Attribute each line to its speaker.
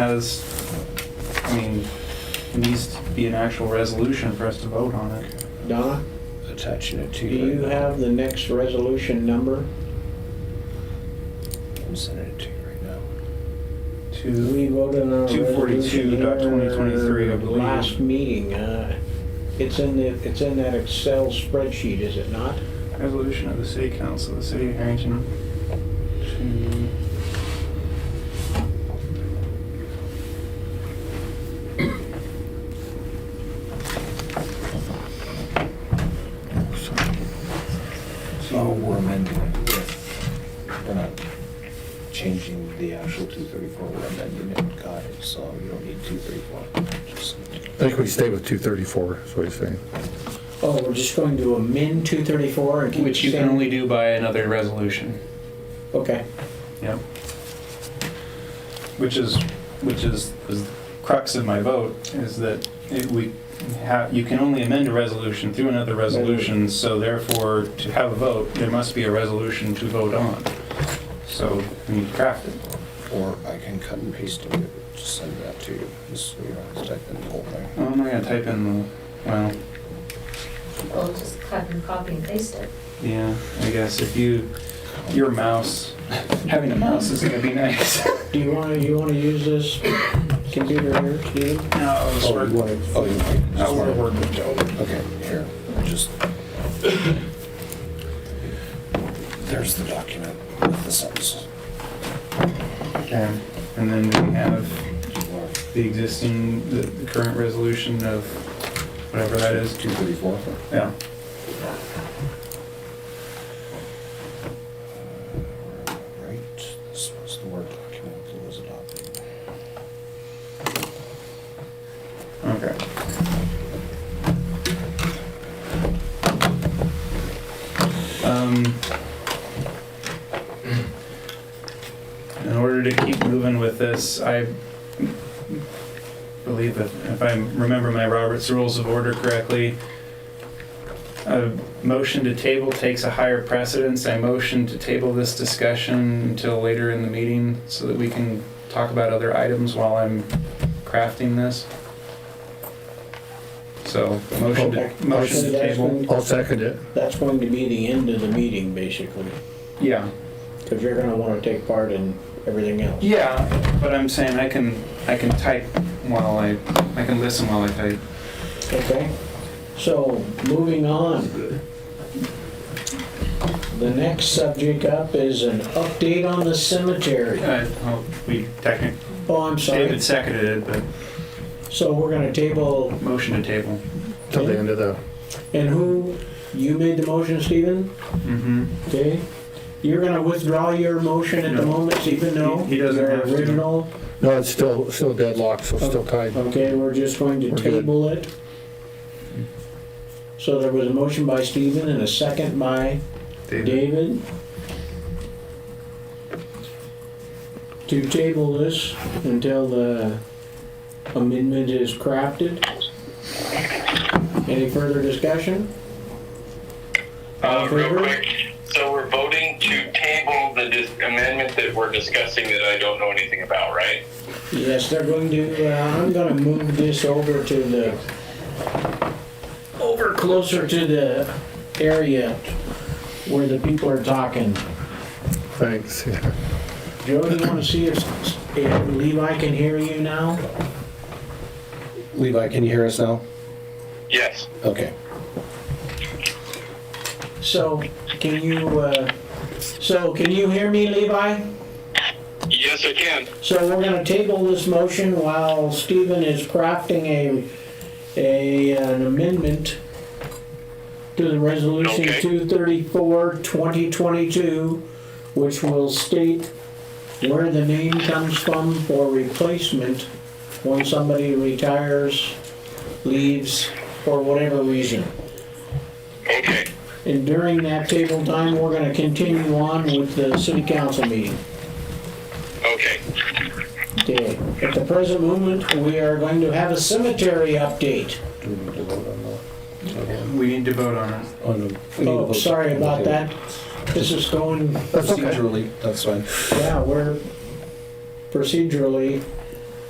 Speaker 1: has, I mean, it needs to be an actual resolution for us to vote on it.
Speaker 2: Donna,
Speaker 3: attaching it to
Speaker 2: do
Speaker 3: you.
Speaker 2: you
Speaker 3: right now.
Speaker 2: have the next resolution number?
Speaker 3: I'm sending it to you right now.
Speaker 1: To,
Speaker 2: We voted on a
Speaker 1: 242
Speaker 2: resolution
Speaker 1: dot 2023, I
Speaker 2: here
Speaker 1: believe.
Speaker 2: Last meeting, uh, it's in the, it's in that Excel spreadsheet, is it not?
Speaker 1: resolution of the city council of the city of Harrington to
Speaker 3: So Oh, we're amending it with, we're not changing the actual two thirty-four, we're amending it, got it, so you don't need two thirty-four.
Speaker 4: I think we stay with 234, is what he's saying.
Speaker 2: Oh, we're just going to amend 234 and keep it
Speaker 1: Which you can
Speaker 2: same?
Speaker 1: only do by another resolution.
Speaker 2: Okay,
Speaker 1: Yep. Which is, which is, is the crux of my vote, is that it, we have, you can only amend a resolution through another resolution, so therefore, to have a vote, there must be a resolution to vote on. So, we need to craft it.
Speaker 3: Or I can cut and paste it, just send that to you, just so you don't have to type in the whole thing.
Speaker 1: Well, I'm not gonna type in the, well,
Speaker 5: Well, just cut and copy and paste it.
Speaker 1: yeah, I guess if you, your mouse, having a mouse is gonna be nice.
Speaker 2: do you want to, you want to use this computer here, Steve?
Speaker 1: No, I was
Speaker 3: Oh,
Speaker 1: sort
Speaker 3: you
Speaker 1: of-
Speaker 3: want it- oh, you want it.
Speaker 1: I wanna work with Joe.
Speaker 3: Okay, here, just. There's the document with the sentence.
Speaker 1: Okay, and then we have
Speaker 3: Do you want
Speaker 1: the existing, the, the current resolution of whatever that is.
Speaker 3: Two thirty-four?
Speaker 1: Yeah.
Speaker 3: Right, this was the Word document that was adopted.
Speaker 1: Okay. Um, in order to keep moving with this, I believe that if I remember my Robert's Rules of Order correctly, a motion to table takes a higher precedence. I motion to table this discussion until later in the meeting so that we can talk about other items while I'm crafting this. So, motion
Speaker 2: Okay.
Speaker 1: to, motion to
Speaker 2: That's
Speaker 1: table.
Speaker 2: going-
Speaker 4: I'll second it.
Speaker 2: That's going to be the end of the meeting, basically,
Speaker 1: Yeah,
Speaker 2: because you're going to want to take part in everything else.
Speaker 1: yeah, but I'm saying I can, I can type while I, I can listen while I type.
Speaker 2: Okay, so moving on. The next subject up is an update on the cemetery.
Speaker 1: Uh, well, we technically,
Speaker 2: Oh, I'm sorry.
Speaker 1: David seconded it, but
Speaker 2: So we're gonna table,
Speaker 1: motion to table.
Speaker 4: Till the end of the,
Speaker 2: and who, you made the motion, Stephen?
Speaker 1: Mm-hmm.
Speaker 2: Okay. You're gonna withdraw your motion at the
Speaker 1: No.
Speaker 2: moment, Stephen, no?
Speaker 1: He- he doesn't
Speaker 2: Your
Speaker 1: have to.
Speaker 2: Original,
Speaker 4: no, it's still, still deadlocked, so still tied.
Speaker 2: okay, we're just going to
Speaker 4: We're good.
Speaker 2: table it. So there was a motion by Stephen and a second by David? To table this until the amendment is crafted? Any further discussion? All
Speaker 6: Uh,
Speaker 2: in
Speaker 6: real
Speaker 2: favor?
Speaker 6: quick, so we're voting to table the dis- amendment that we're discussing that I don't know anything about, right?
Speaker 2: Yes, they're going to, uh, I'm gonna move this over to the, over closer to the area where the people are talking.
Speaker 4: Thanks. Yeah.
Speaker 2: Joe, do you wanna see if if Levi can hear you now?
Speaker 3: Levi, can you hear us now?
Speaker 6: Yes.
Speaker 3: Okay.
Speaker 2: So, can you, uh, so can you hear me, Levi?
Speaker 6: Yes, I can.
Speaker 2: So we're gonna table this motion while Stephen is crafting a, a, an amendment to the resolution
Speaker 6: Okay.
Speaker 2: 234, 2022, which will state where the name comes from for replacement when somebody retires, leaves, for whatever reason.
Speaker 6: Okay.
Speaker 2: And during that table time, we're gonna continue on with the city council meeting.
Speaker 6: Okay.
Speaker 2: Okay, at the present moment, we are going to have a cemetery update.
Speaker 3: Do we need to vote on that?
Speaker 1: We need to vote on it.
Speaker 3: On the- we need to
Speaker 2: Oh,
Speaker 3: vote
Speaker 2: sorry
Speaker 3: on the
Speaker 2: about
Speaker 3: table.
Speaker 2: that. This is going,
Speaker 4: That's okay.
Speaker 3: Procedurally, that's fine.
Speaker 2: yeah, we're procedurally,